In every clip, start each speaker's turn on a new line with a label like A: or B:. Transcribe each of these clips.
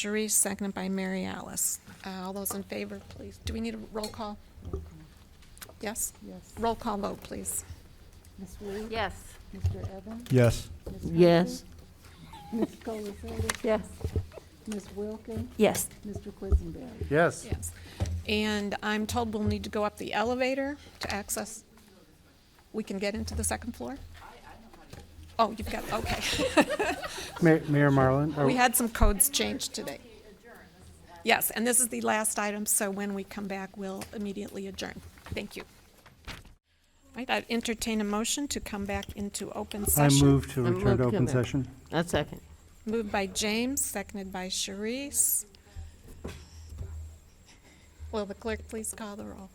A: Sharice, seconded by Mary Alice. Uh, All those in favor, please. Do we need a roll call? Yes?
B: Yes.
A: Roll call vote, please.
B: Ms. Reed?
C: Yes.
B: Mr. Evans?
D: Yes.
B: Ms. Huntley?
E: Yes.
B: Ms. Colasetti?
C: Yes.
B: Ms. Wilkin?
E: Yes.
B: Mr. Quisenberry?
D: Yes.
A: Yes. And I'm told we'll need to go up the elevator to access, we can get into the second floor? Oh, you've got, okay.
D: Ma- Mayor Marlin, oh, are-
A: We had some codes changed today. Yes, and this is the last item, so when we come back, we'll immediately adjourn. Thank you. Right, I entertain a motion to come back into open
D: I
A: session.
D: move to
E: I
D: return
E: move
D: to
E: to
D: open
E: back.
D: session.
E: A second.
A: Moved by James, seconded by Sharice. Will the clerk please call the roll?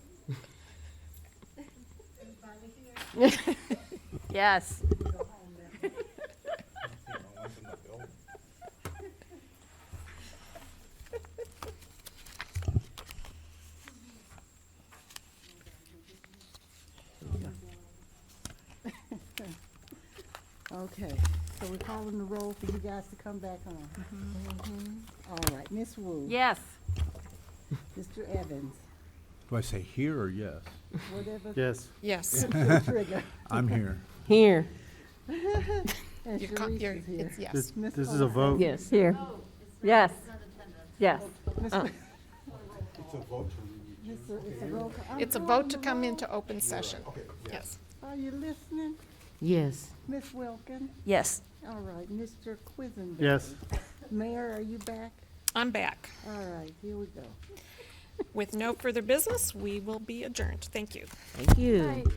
C: Yes.
B: Okay, so we're calling the roll for you guys to come back on. All right, Ms. Wu?
C: Yes.
B: Mr. Evans?
F: Do I say here or yes?
B: Whatever
D: Yes.
A: Yes.
B: the trigger.
F: I'm here.
E: Here.
B: And
A: You're co- you're-
B: Sharice is here.
A: it's yes.
D: This
B: Ms.
D: this is a vote.
E: Yes. Here.
C: Yes. Yes.
B: Mr. It's a roll call. I'm
A: It's a
B: calling
A: vote to
B: the
A: come
B: roll.
A: into open session. Yes.
B: Are you listening?
E: Yes.
B: Ms. Wilkin?
E: Yes.
B: All right, Mr. Quisenberry?
D: Yes.
B: Mayor, are you back?
A: I'm back.
B: All right, here we go.
A: With no further business, we will be adjourned. Thank you.
E: Thank you.